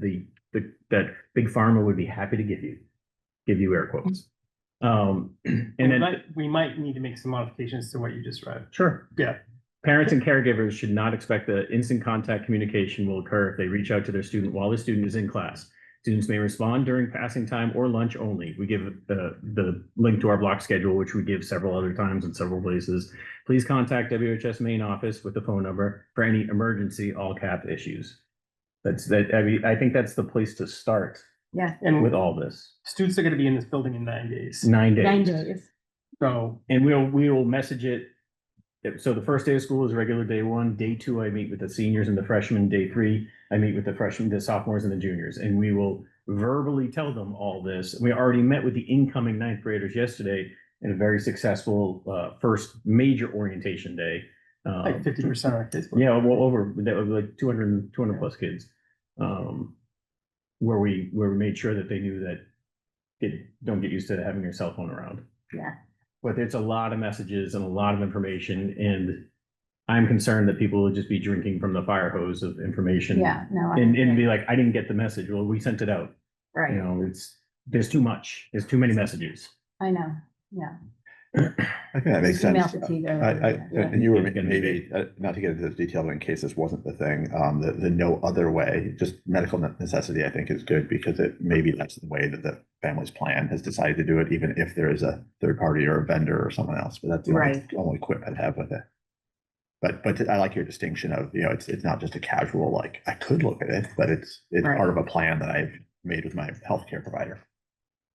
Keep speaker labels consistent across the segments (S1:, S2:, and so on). S1: the, the, that big pharma would be happy to give you, give you air quotes. Um, and
S2: We
S1: then.
S2: might, we might need to make some modifications to what you just read.
S1: Sure.
S2: Yeah.
S1: Parents and caregivers should not expect that instant contact communication will occur if they reach out to their student while the student is in class. Students may respond during passing time or lunch only. We give the, the link to our block schedule, which we give several other times in several places. Please contact WHS main office with the phone number for any emergency all cap issues. That's that, I mean, I think that's the place to start with
S2: And
S3: Mm-hmm.
S1: all Mm. this.
S2: students are gonna be in this building in nine days,
S1: Nine days.
S3: Nine days.
S2: so
S1: And we'll, we will message it. So the first day of school is regular day one, day two, I meet with the seniors and the freshmen, day three, I meet with the freshmen, the sophomores and the juniors, and we will verbally tell them all this. We already met with the incoming ninth graders yesterday in a very successful, uh, first major orientation day.
S2: like
S1: Um,
S2: fifty percent of our kids. will-
S1: yeah, well, over, that was like 200 200 plus kids. Um, where we, where we made sure that they knew that it, don't get used to having your cell phone around.
S3: Yeah.
S1: But it's a lot of messages and a lot of information and I'm concerned that people will just be drinking from the fire hose of information.
S3: Yeah, no. I
S1: And, and
S3: agree.
S1: be like, I didn't get the message. Well, we sent it out. You
S3: Right,
S1: know, it's, there's too much. There's too many messages.
S3: I know, yeah.
S4: I think that makes
S3: Email
S4: sense.
S3: fatigue
S4: I,
S3: or-
S4: I,
S3: yeah.
S4: and you were
S1: It's gonna be
S4: maybe, uh, not to get into this detail, but in case this wasn't the thing, um, the, the no other way, just medical ne- necessity, I think is good because it maybe that's the way that the family's plan has decided to do it, even if there is a third party or a vendor or someone else, but that's the only,
S3: Right.
S4: only quip I'd have with it. But, but I like your distinction of, you know, it's, it's not just a casual, like, I could look at it, but it's, it's
S3: Right.
S4: part of a plan that I've made with my healthcare provider.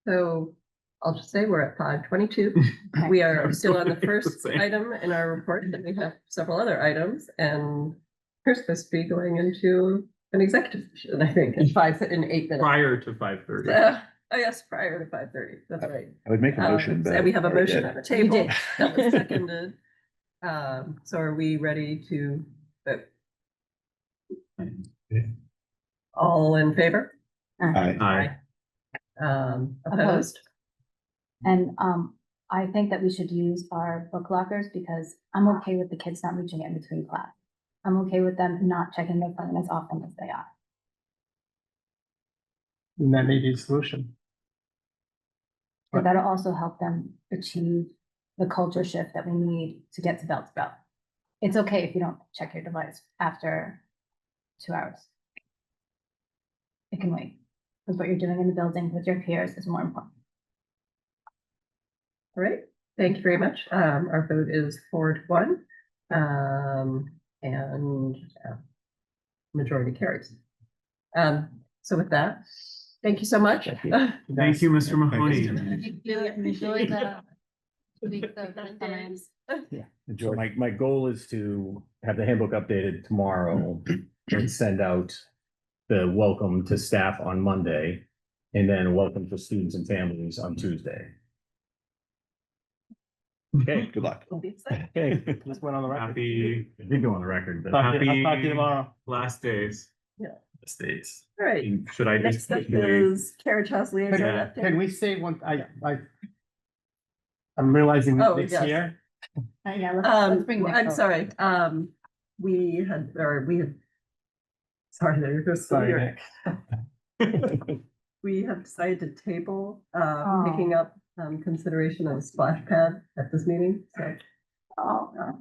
S5: So I'll just say we're at five twenty-two.
S3: Okay.
S5: We
S2: I
S5: are
S2: was
S5: still on the
S2: wondering the
S5: first
S2: same.
S5: item in our report, and we have several other items, and we're supposed to be going into an executive session, I think, in five, in eight minutes.
S2: Prior to five thirty.
S5: Uh, Oh, yes, prior to five thirty, that's right.
S4: I would make a
S5: Um,
S4: motion, but.
S5: And we have a
S4: or-
S5: motion on the
S3: You
S5: table
S3: did.
S5: that was seconded. Um, so are we ready to vote? All in favor?
S4: I-
S1: I,
S5: Um,
S3: Opposed.
S5: opposed?
S3: And um, I think that we should use our book lockers because I'm okay with the kids not reaching it in between class. I'm okay with them not checking their phone as often as they are.
S2: And that may be the solution.
S3: But that'll also help them achieve the culture shift that we need to get to belt to belt. It's okay if you don't check your device after two hours. It can wait, because what you're doing in the building with your peers is more important.
S5: All right, thank you very much. Um, our vote is four to one. Um, and uh, majority carries. Um, so with that, thank you so much.
S1: Thank you.
S2: Thank you, Mr.
S4: Mahoney.
S2: enjoy the-
S1: So my, my goal is to have the handbook updated tomorrow and send out the welcome to staff on Monday and then welcome to students and families on Tuesday. Okay,
S4: Good luck.
S1: okay.
S2: Just went on the record.
S6: Happy
S1: I did go on the record, but
S2: Talk to you- I'll talk to you tomorrow.
S6: last days.
S5: Yeah.
S6: Last days.
S5: All right,
S6: Should I
S5: next
S6: just?
S5: up is Carriage House
S2: Can
S5: liaison
S2: can
S5: update.
S2: we say one, I, I. I'm realizing
S5: Oh,
S2: this
S5: yes.
S2: year,
S3: Yeah, let's, let's
S5: Um,
S3: bring Nick
S5: I'm
S3: over.
S5: sorry, um, we had, or we had. Sorry, there goes. the
S2: Sorry,
S5: lyric.
S2: Nick.
S5: We have decided to table, uh,
S3: Oh.
S5: picking up, um, consideration of a splash pad at this meeting, so.
S3: Oh, no.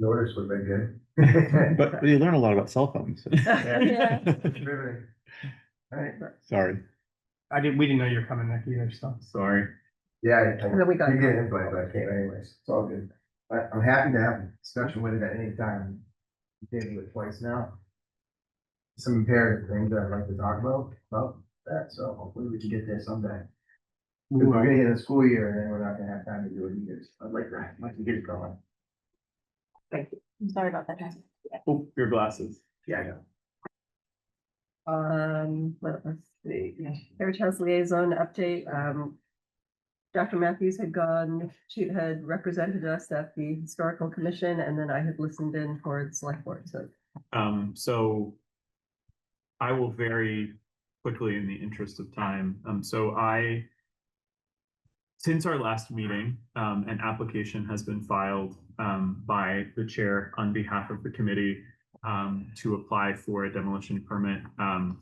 S7: Notice what they get.
S4: But you learn a lot about cell phones.
S5: Yeah.
S7: All right.
S4: Sorry.
S2: I didn't, we didn't know you were coming, Nick, either, so.
S1: sorry.
S7: Yeah, I, I
S5: And then we got-
S7: you get an invite, but I can't anyways, it's all good. I, I'm happy to have a discussion with it at any time. We Did it twice now. Some imperative things that I'd like to talk about, about that, so hopefully we can get there someday.
S2: we
S7: If We're
S2: will.
S7: gonna get a school year and then we're not gonna have time to do it either, so I'd like to, I'd like to get it going.
S3: I'm sorry about that. guys.
S6: Oh, Your glasses.
S7: Yeah, I know.
S5: Um, let us see, Heritage House Liaison update, um. Dr. Matthews had gone, she had represented us at the Historical Commission, and then I had listened in for the select board, so.
S6: Um, so I will very quickly in the interest of time. Um, so I since our last meeting, um, an application has been filed um, by the chair on behalf of the committee um, to apply for a demolition permit. Um,